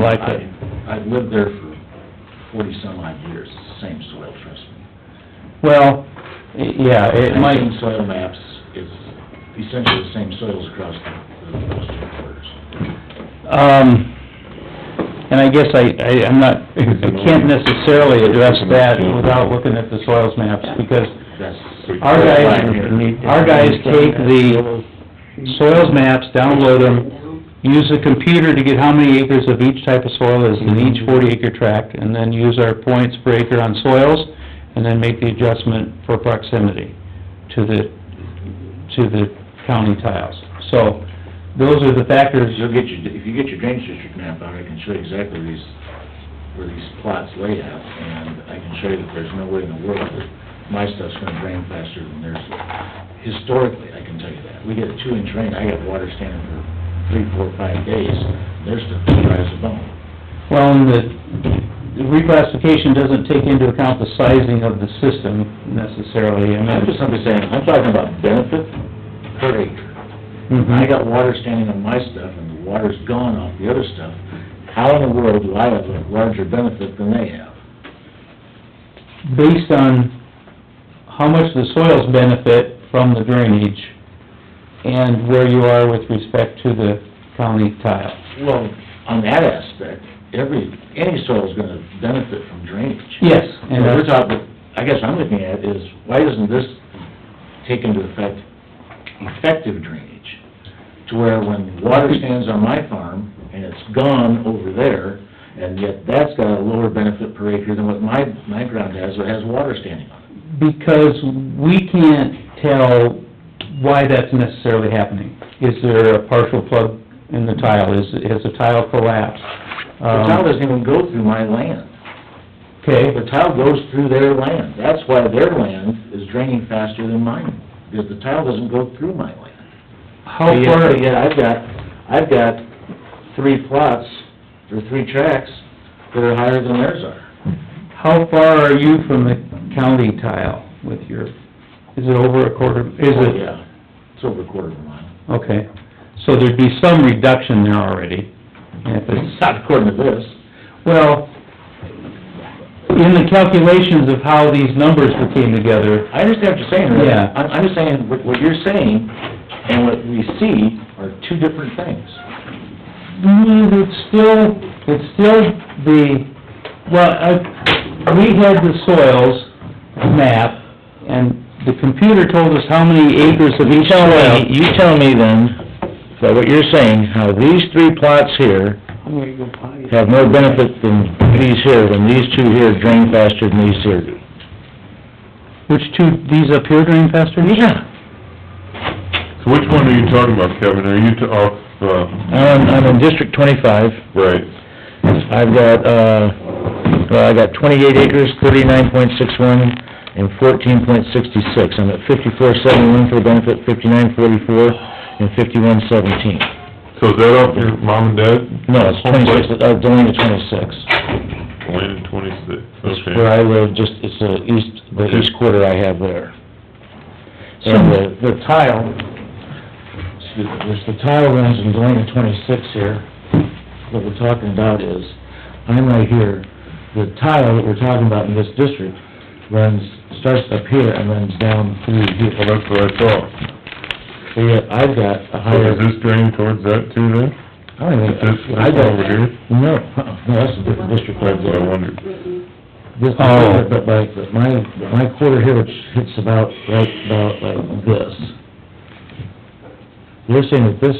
Like it. I- I've lived there for forty-some odd years, it's the same soil, trust me. Well, y- yeah, it might, Same soil maps, it's essentially the same soils across the, those two quarters. um, and I guess I, I, I'm not, I can't necessarily address that without looking at the soils maps, because That's. our guys, our guys take the soils maps, download them, use the computer to get how many acres of each type of soil is in each forty acre tract, and then use our points per acre on soils, and then make the adjustment for proximity to the, to the county tiles. So, those are the factors, You'll get your, if you get your drainage district map out, I can show you exactly where these, where these plots lay out, and I can show you that there's no way in the world that my stuff's gonna drain faster than theirs. Historically, I can tell you that. We get a two-inch rain, I got water standing for three, four, five days, their stuff is dry as a bone. well, and the the reclassification doesn't take into account the sizing of the system necessarily, I I'm mean... just simply saying, I'm talking about benefit per acre. Mhm. I got water standing on my stuff, and the water's gone off the other stuff. How in the world do I have a larger benefit than they have? based on how much the soils benefit from the drainage and where you are with respect to the county tile. Well, on that aspect, every, any soil's gonna benefit from drainage. Yes. And And we're that's, talking, I guess I'm looking at is, why doesn't this take into effect effective drainage? To where when water stands on my farm and it's gone over there, and yet that's got a lower benefit per acre than what my, my ground has, that has water standing on it. because we can't tell why that's necessarily happening. Is there a partial plug in the tile? Is, has the tile collapsed? The tile Um, doesn't even go through my land. Okay, The tile goes through their land. That's why their land is draining faster than mine, because the tile doesn't go through my land. how Yeah, far, Yeah, I've got, I've got three plots, or three tracks that are higher than theirs are. how far are you from the county tile with your, is it over a quarter, is Oh, it? Yeah, it's over a quarter of a mile. Okay, so there'd be some reduction there already. And if It's it's- not according to this. Well, in the calculations of how these numbers were came together, I understand what you're saying, Rick. Yeah. I'm, I'm just saying, what, what you're saying and what we see are two different things. mm, it's still, it's still the, well, I, we had the soils map, and the computer told us how many acres of each Tell soil. me, you tell me then, by what you're saying, how these three plots here have more benefit than these here, when these two here drain faster than these here do. Which two, these up here during faster? Yeah. So which one are you talking about, Kevin? Are you to, off, uh, I'm, I'm in District twenty-five. right, I've got, uh, well, I got twenty-eight acres, thirty-nine point six one, and fourteen point sixty-six. I'm at fifty-four seventy-one for the benefit, fifty-nine forty-four, and fifty-one seventeen. so is that off your mom and dad? No, it's twenty-six, uh, the line is twenty-six. Land twenty-six, Where okay. I live, just, it's the east, the Okay. east quarter I have there. And the, the tile, excuse me, there's the tile runs in Galena twenty-six here. What we're talking about is, I'm right here, the tile that we're talking about in this district runs, starts up here and runs down through Well, here. that's what I thought. So yet I've got a So higher, Is this draining towards that too then? I don't even, Is this, I this got, over here? no, uh-uh, no, that's a different district right That's what I there. wondered. This, Oh. but like, but my, but my quarter here, which hits about, right about like this. You're saying that this,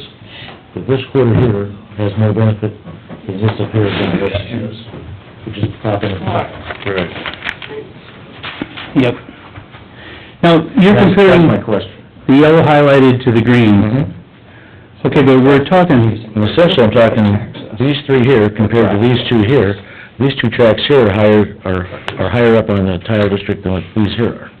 that this quarter here has more benefit than this up here than this is, which is popping apart. Right. Yep. Now, you're That's- comparing That's my question. the yellow highlighted to the green. Mm-hmm. Okay, but we're talking, And essentially, I'm talking, these three here compared to these two here, these two tracks here are higher, are, are higher up on the tile district than what these here are. I'm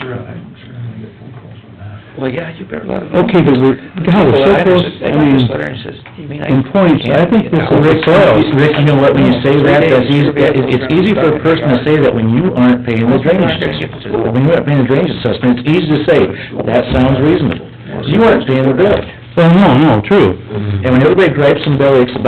sure, I'm sure I'm gonna get phone calls from that. Well, yeah, you better let them know. okay, but we're, God, we're so close, They I got this mean, letter and says, you mean I... in points, I think this is the soils. Rick, you know what, when you say that, that's easy, that- it's it's easy for a person to say that when you aren't paying the drainage assessment. When you aren't paying the drainage assessment, it's easy to say, that sounds reasonable. You aren't paying the bill. Oh, no, no, true. And when everybody gripes and bellies about